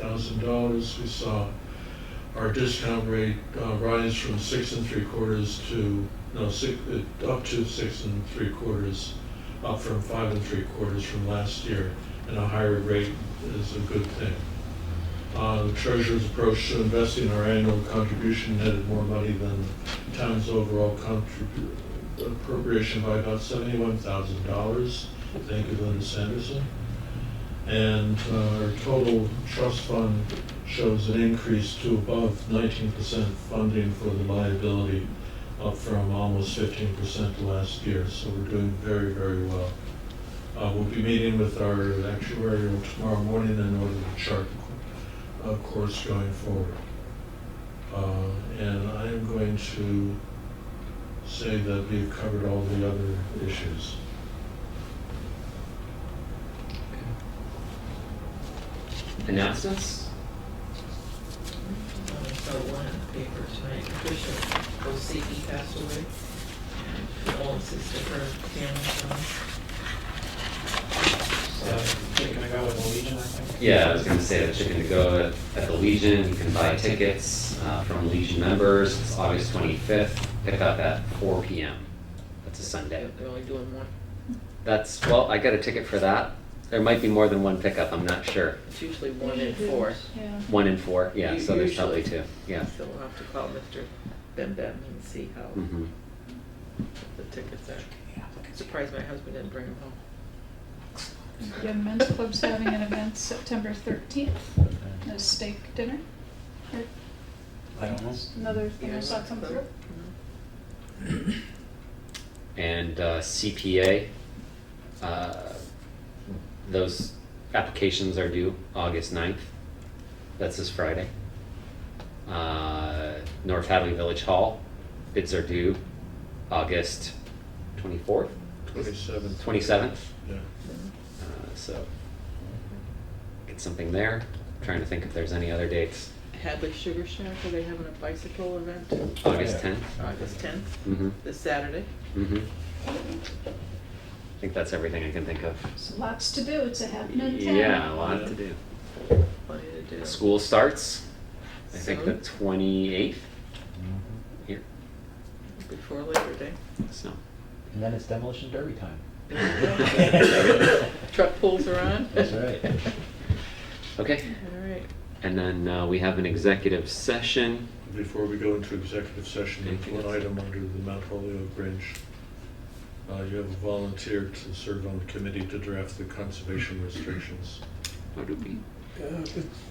thousand dollars. We saw our discount rate uh, rise from six and three quarters to, no, six, uh, up to six and three quarters, up from five and three quarters from last year, and a higher rate is a good thing. Uh, The treasurer's approach to investing our annual contribution netted more money than town's overall contribu- appropriation by about seventy-one thousand dollars. Thank you, Linda Sanderson. And uh, our total trust fund shows an increase to above nineteen percent funding for the liability, up from almost fifteen percent last year, so we're doing very, very well. Uh, We'll be meeting with our actuarial tomorrow morning in order to chart a course going forward. Uh, And I am going to say that we've covered all the other issues. Announcements? Uh, So one in the paper tonight, Patricia Osiki passed away. Condolences to her family. So, chicken to go with the Legion, I think. Yeah, I was gonna say that chicken to go at- at the Legion, you can buy tickets uh, from Legion members, it's August 25th, pick up at 4 PM. That's a Sunday. They're only doing one, That's, well, I got a ticket for that. There might be more than one pickup, I'm not sure. it's usually one in four. Yeah. One in four, yeah, so there's probably Usually. two, yeah. So we'll have to call Mr. Ben Ben and see how Mhm. the tickets are. I'm Surprised my husband didn't bring them home. Young Men's Club's having an event September thirteenth, a steak dinner. Or I don't know. Another thing Yeah, I saw that's come the- through. And uh, CPA, uh, those applications are due August 9th. That's this Friday. Uh, North Hadley Village Hall, bids are due August 24th, Twenty-seven. 27th. Yeah. Uh, So get something there. Trying to think if there's any other dates. Hadley Sugar Shack, are they having a bicycle event August Yeah. 10th? August tenth, Mm-hmm, this Saturday? mm-hmm. I think that's everything I can think of. So lots to do, it's a happening town. Yeah, a lot to do. Plenty to do. School starts, I think the Soon, twenty-eighth Mm-hmm. here, before Labor Day. so. And then it's demolition derby time. Truck pulls are on. That's right. Okay, All right. and then uh, we have an executive session. Before we go into executive session, Anything there's one else? item under the Mount Holyoke Bridge. Uh, You have a volunteer to serve on the committee to draft the conservation restrictions. What do we?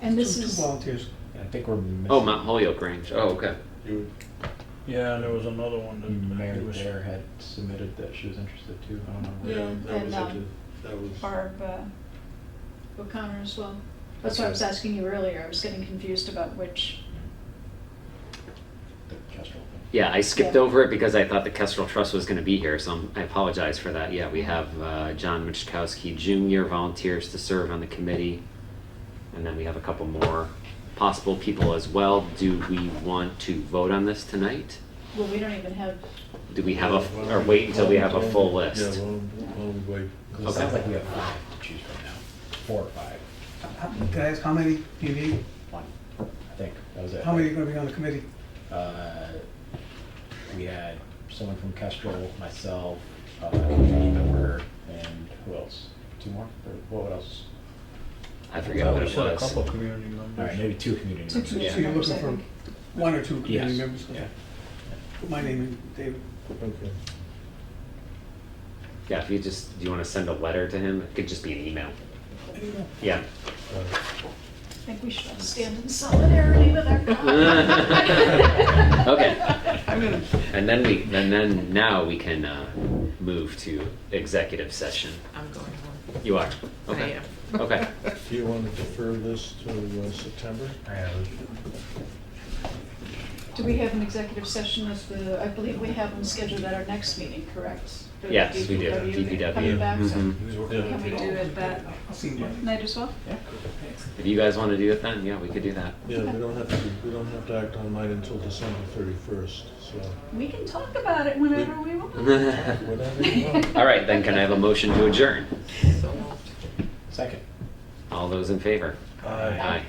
And this is- Uh, Two volunteers. I think we're missing. Oh, Mount Holyoke Range. Oh, okay. You, Yeah, and there was another one that. Mm, Mary it was- Dare had submitted that she was interested too. I don't know. where. Yeah, that was, and, a- um, that was, Barb uh, O'Connor as well. That's why I was asking you earlier, I was getting confused about which. The Kestrel thing. Yeah, I skipped Yeah. over it because I thought the Kestrel Trust was going to be here, so I'm- I apologize for that. Yeah, we have uh, John Michkowski Jr. volunteers to serve on the committee, and then we have a couple more possible people as well. Do we want to vote on this tonight? Well, we don't even have, Do we have a, or wait until we have a full list? Oh, yeah, well, well, wait. 'Cause It sounds like we have five to choose from now. Four or five. How- Can I ask, Uh, how many do you need? One, I think. That was it. How many are gonna be on the committee? Uh, we had someone from Kestrel, myself, uh, a committee member, and who else? Two more? Or what else? I forget what it said was. community All right, maybe two community Two members. community So you're looking for one or two community Yes. members? Yeah. Put My name in, David. Okay. Yeah, if you just, do you want to send a letter to him? It could just be an email. I don't know. Yeah. Uh, I think we should all stand in solidarity with our. God. Okay. And then we, and then now we can uh, move to executive session. I'm going home. You are? I Okay. am. Okay. Do you want to defer this to uh, September? I have Do we have an executive session of the, I believe we have them scheduled at our next meeting, correct? For the Yes, we do, DPW, DPW. Coming back, so Mhm. Yeah. can we do it that I'll see you. night as well? If you guys want to do it then, yeah, we could do that. Yeah, we don't have to, we don't have to act on mine until December thirty-first, so We can talk about it whenever we want. whatever you want. All right, then can I have a motion to adjourn? So moved. Second. All those in favor? Aye. Aye.